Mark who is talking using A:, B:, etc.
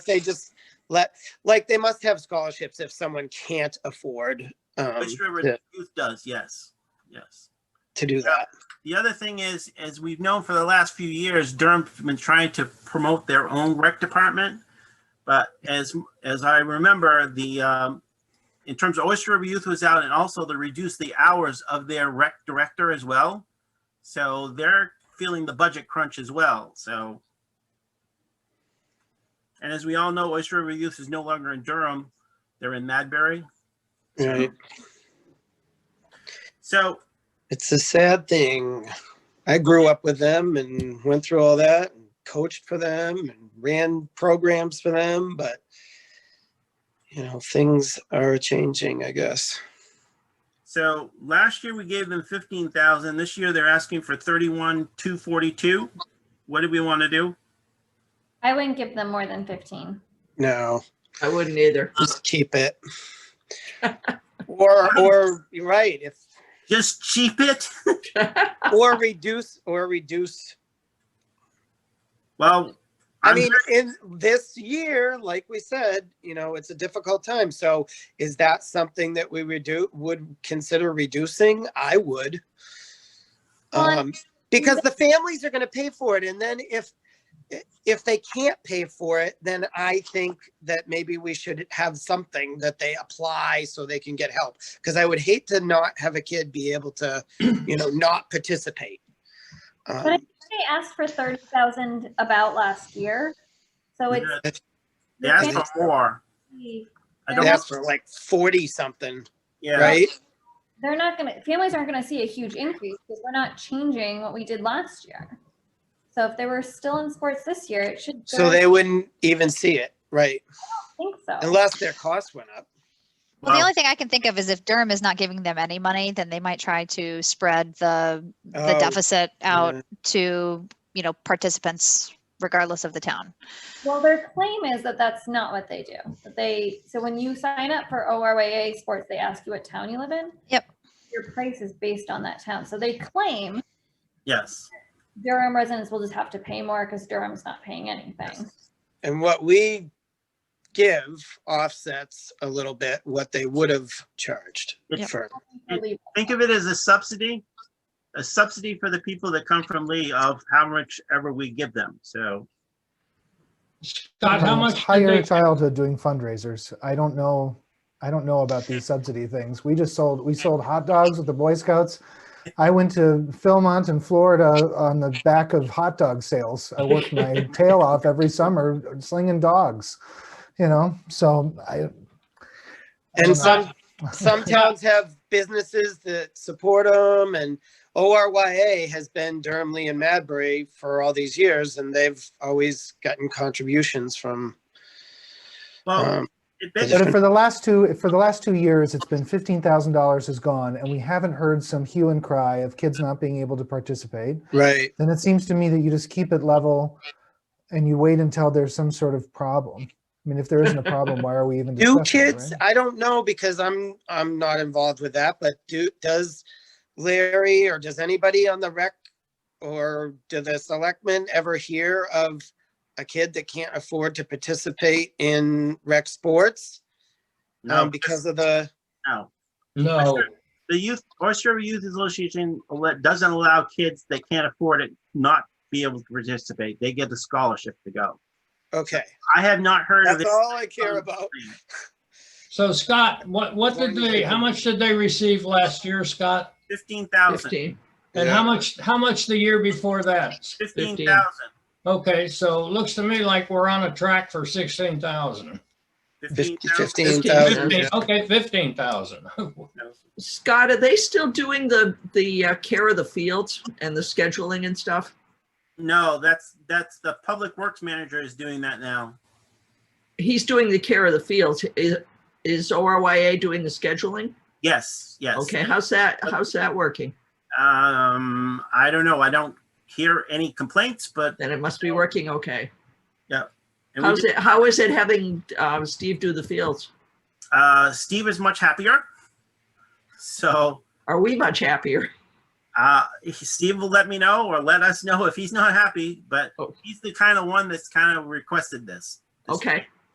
A: they just let like they must have scholarships if someone can't afford um,
B: Fish River
A: to,
B: Youth does, yes, yes.
A: to do that.
B: The other thing is, as we've known for the last few years, Durham's been trying to promote their own rec department. But as, as I remember, the, um, in terms of Oyster River Youth was out and also to reduce the hours of their rec director as well. So they're feeling the budget crunch as well, so. And as we all know, Oyster River Youth is no longer in Durham. They're in Madbury.
A: Right.
B: So
A: It's a sad thing. I grew up with them and went through all that and coached for them and ran programs for them, but you know, things are changing, I guess.
B: So last year we gave them fifteen thousand. This year they're asking for thirty-one, two forty-two. What do we want to do?
C: I wouldn't give them more than fifteen.
A: No,
D: I wouldn't either.
A: just keep it. or or you're right, if
B: Just cheap it?
A: or reduce or reduce
B: Well,
A: I
B: I'm
A: mean, in this year, like we said, you know, it's a difficult time. So is that something that we would do, would consider reducing? I would.
C: Well,
A: Um, because the families are gonna pay for it. And then if, if they can't pay for it, then I think that maybe we should have something that they apply so they can get help. Cause I would hate to not have a kid be able to, you know, not participate.
C: I-
A: Um,
C: They asked for thirty thousand about last year, so it's.
B: they asked for more.
C: They
B: I
A: They
B: don't,
A: asked for like forty something,
B: yeah,
A: right?
C: They're not gonna, families aren't gonna see a huge increase because we're not changing what we did last year. So if they were still in sports this year, it should.
A: So
C: go- I
A: they wouldn't even see it, right?
C: Think so.
A: Unless their costs went up.
E: Well, the
B: Wow.
E: only thing I can think of is if Durham is not giving them any money, then they might try to spread the, the
A: Oh,
E: deficit out
A: yeah.
E: to, you know, participants regardless of the town.
C: Well, their claim is that that's not what they do. That they, so when you sign up for ORYA sports, they ask you what town you live in.
E: Yep.
C: Your price is based on that town. So they claim
B: yes.
C: Durham residents will just have to pay more because Durham's not paying anything.
A: And what we give offsets a little bit what they would have charged
E: Yep.
A: for.
C: Really
B: Think of it as a subsidy, a subsidy for the people that come from Lee of how much ever we give them. So
F: Scott, how
G: Um,
F: much did
G: Higher
F: they,
G: childhood doing fundraisers. I don't know, I don't know about these subsidy things. We just sold, we sold hot dogs with the Boy Scouts. I went to Philmont in Florida on the back of hot dog sales. I worked my tail off every summer slinging dogs, you know, so I.
A: And some, some towns have businesses that support them and ORYA has been Durham, Lee and Madbury for all these years and they've always gotten contributions from,
B: well,
A: um,
B: it
G: But
B: basically
G: for the last two, for the last two years, it's been fifteen thousand dollars is gone and we haven't heard some hue and cry of kids not being able to participate.
A: right.
G: then it seems to me that you just keep it level and you wait until there's some sort of problem. I mean, if there isn't a problem, why are we even
A: Do
G: discussing it,
A: kids,
G: right?
A: I don't know because I'm, I'm not involved with that, but do, does Larry or does anybody on the rec or do the selectmen ever hear of a kid that can't afford to participate in rec sports?
B: no,
A: Um, because of the,
B: no.
F: no,
B: The youth, Oyster River Youth Association ele- doesn't allow kids that can't afford it not be able to participate. They get the scholarship to go.
A: okay,
B: I have not heard of
A: that's
B: it. Um,
A: all I care about.
F: so Scott, what, what did they, how much did they receive last year, Scott?
B: Fifteen thousand.
D: Fifteen.
F: And
A: Yeah.
F: how much, how much the year before that?
B: Fifteen
D: 15.
B: thousand.
F: Okay, so it looks to me like we're on a track for sixteen thousand.
B: Fifteen thousand.
A: Fifteen thousand.
F: Fifteen, okay, fifteen thousand.
D: Scott, are they still doing the, the uh, care of the fields and the scheduling and stuff?
B: No, that's, that's, the public works manager is doing that now.
D: He's doing the care of the fields. Is, is ORYA doing the scheduling?
B: Yes, yes.
D: Okay, how's that, how's that working?
B: Um, I don't know. I don't hear any complaints, but.
D: Then it must be working okay.
B: and we
D: How's
B: do-
D: it, how is it having uh, Steve do the fields?
B: Uh, Steve is much happier. So,
D: Are we much happier?
B: uh, Steve will let me know or let us know if he's not happy, but
D: Oh.
B: he's the kind of one that's kind of requested this.
D: Okay,